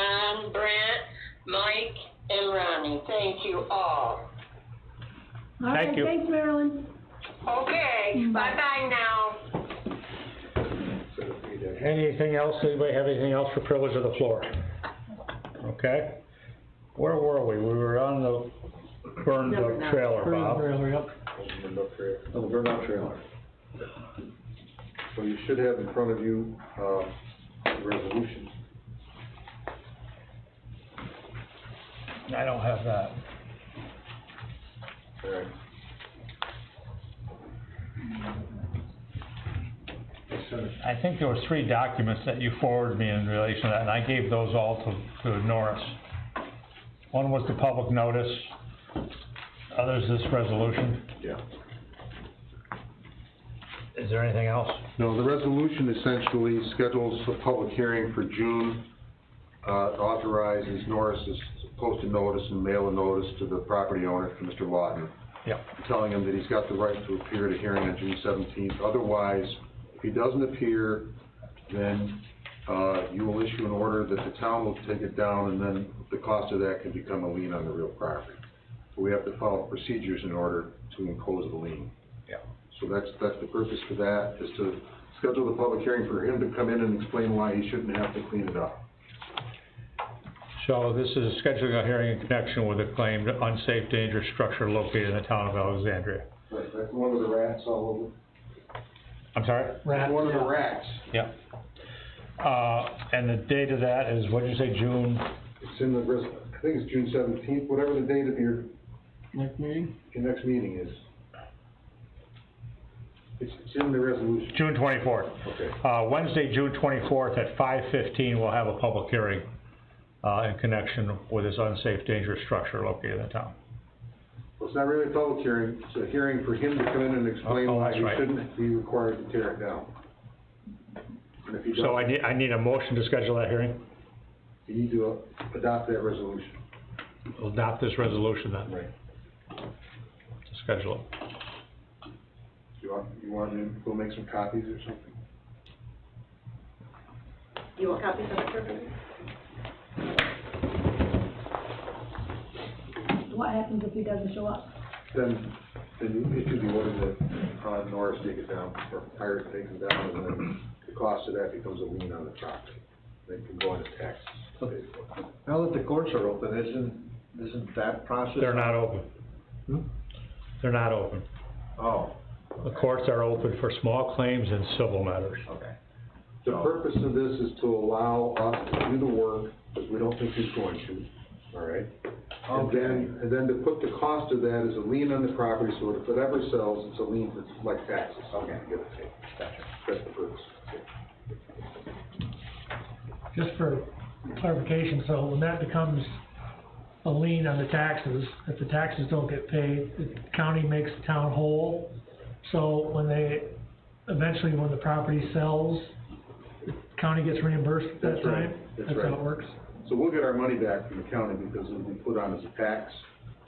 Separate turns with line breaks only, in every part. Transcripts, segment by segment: John, Brent, Mike, and Ronnie. Thank you all.
All
Thank
right,
you.
thanks, Marilyn.
Okay,
Bye.
bye-bye now.
Anything else, anybody have anything else for privilege of the floor? Okay? Where were we? We were on the burned
No, we're not.
trailer, Bob.
On Oh, the burnout trailer. So you should have in front of you, uh, the resolution.
I don't have that.
Alright.
I think there were three documents that you forwarded me in relation to that, and I gave those all to, to Norris. One was the public notice, others this resolution.
Yeah.
Is there anything else?
No, the resolution essentially schedules a public hearing for June, uh, authorizes Norris to post a notice and mail a notice to the property owner, to Mr. Lawton,
Yep.
telling him that he's got the right to appear at a hearing on June seventeenth. Otherwise, if he doesn't appear, then, uh, you will issue an order that the town will take it down, and then the cost of that can become a lien on the real property. We have to follow procedures in order to impose the lien.
Yeah.
So that's, that's the purpose for that, is to schedule the public hearing for him to come in and explain why he shouldn't have to clean it up.
So this is scheduling a hearing in connection with a claimed unsafe dangerous structure located in the town of Alexandria.
Right, that's one of the rats all
I'm sorry?
over. One of the rats.
Yep. Uh, and the date of that is, what'd you say, June?
It's in the, res- I think it's June seventeenth, whatever the date of your,
Next meeting?
your next meeting is. It's, it's in the resolution.
June twenty-fourth.
Okay.
Uh, Wednesday, June twenty-fourth at five fifteen, we'll have a public hearing, uh, in connection with this unsafe dangerous structure located in town.
Well, it's not really a public hearing, it's a hearing for him to come in and explain
Oh,
why
that's
he
right.
shouldn't be required to tear it down. And if he
So I
doesn't,
need, I need a motion to schedule that hearing.
you need to adopt that resolution.
We'll adopt this resolution then,
Right.
to schedule it.
You want, you want to go make some copies or something?
You want copies of the survey? What happens if he doesn't show up?
Then, then it should be ordered that, uh, Norris take it down, or Pirate takes it down, and then the cost of that becomes a lien on the property. They can go on to taxes. basically.
Now that the courts are open, isn't, isn't that process?
They're not open.
Hmm?
They're not open.
Oh,
The courts are open for small claims and civil matters.
okay.
The purpose of this is to allow us to do the work, because we don't think he's going to, all right? And then, and then to put the cost of that as a lien on the property, so if it ever sells, it's a lien for, like taxes.
Okay.
Give or take. That's the purpose.
just for clarification, so when that becomes a lien on the taxes, if the taxes don't get paid, the county makes the town whole. So when they, eventually when the property sells, the county gets reimbursed at that
That's right.
time?
That's
how
right.
it works?
So we'll get our money back from the county because it'll be put on as a tax.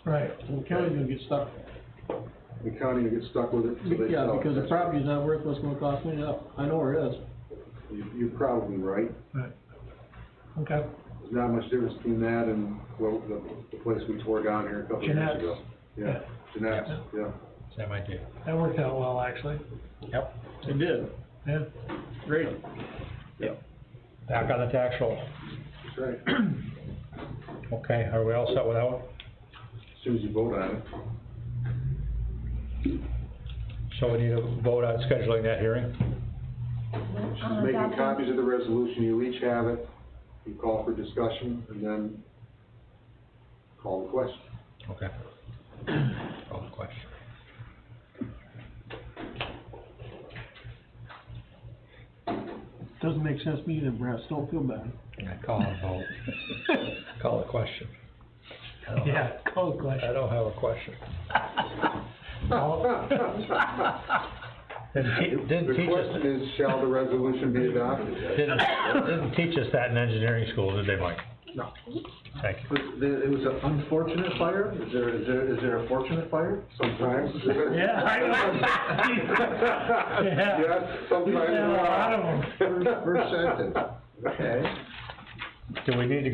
Right.
So the county's gonna get stuck,
The county will get stuck with it until they
yeah,
sell it.
because the
That's-
property's not worth what's gonna cost me, yeah, I know where it is.
you- You're probably right.
Okay.
There's not much difference between that and, well, the, the place we tore down here a couple of years
Jeanette's.
ago. Yeah, Jeanette's, yeah.
Same idea.
That worked out well, actually.
Yep.
It did,
Yeah.
great.
Back on the tax roll.
That's right. As
Okay, are we all set with that one?
soon as you vote on it.
So we need to vote on scheduling that hearing?
She's
Uh,
making copies of the resolution, you each have it, you call for discussion, and then call the question.
Okay. Call the question.
Doesn't make sense to me either, Brad, so don't feel bad.
Yeah, call a vote. Call the question. I don't have-
Yeah, cold question.
I don't have a question. Didn't,
The question is, shall the resolution be adopted?
didn't, didn't teach us that in engineering school, did they, Mike?
No.
Thank you.
But there, it was an unfortunate fire, is there, is there, is there a fortunate fire?
Sometimes.
Yeah, I know. Yeah.
Yes, sometimes.
We've had a lot of them.
First, first sentence, okay.
do we need to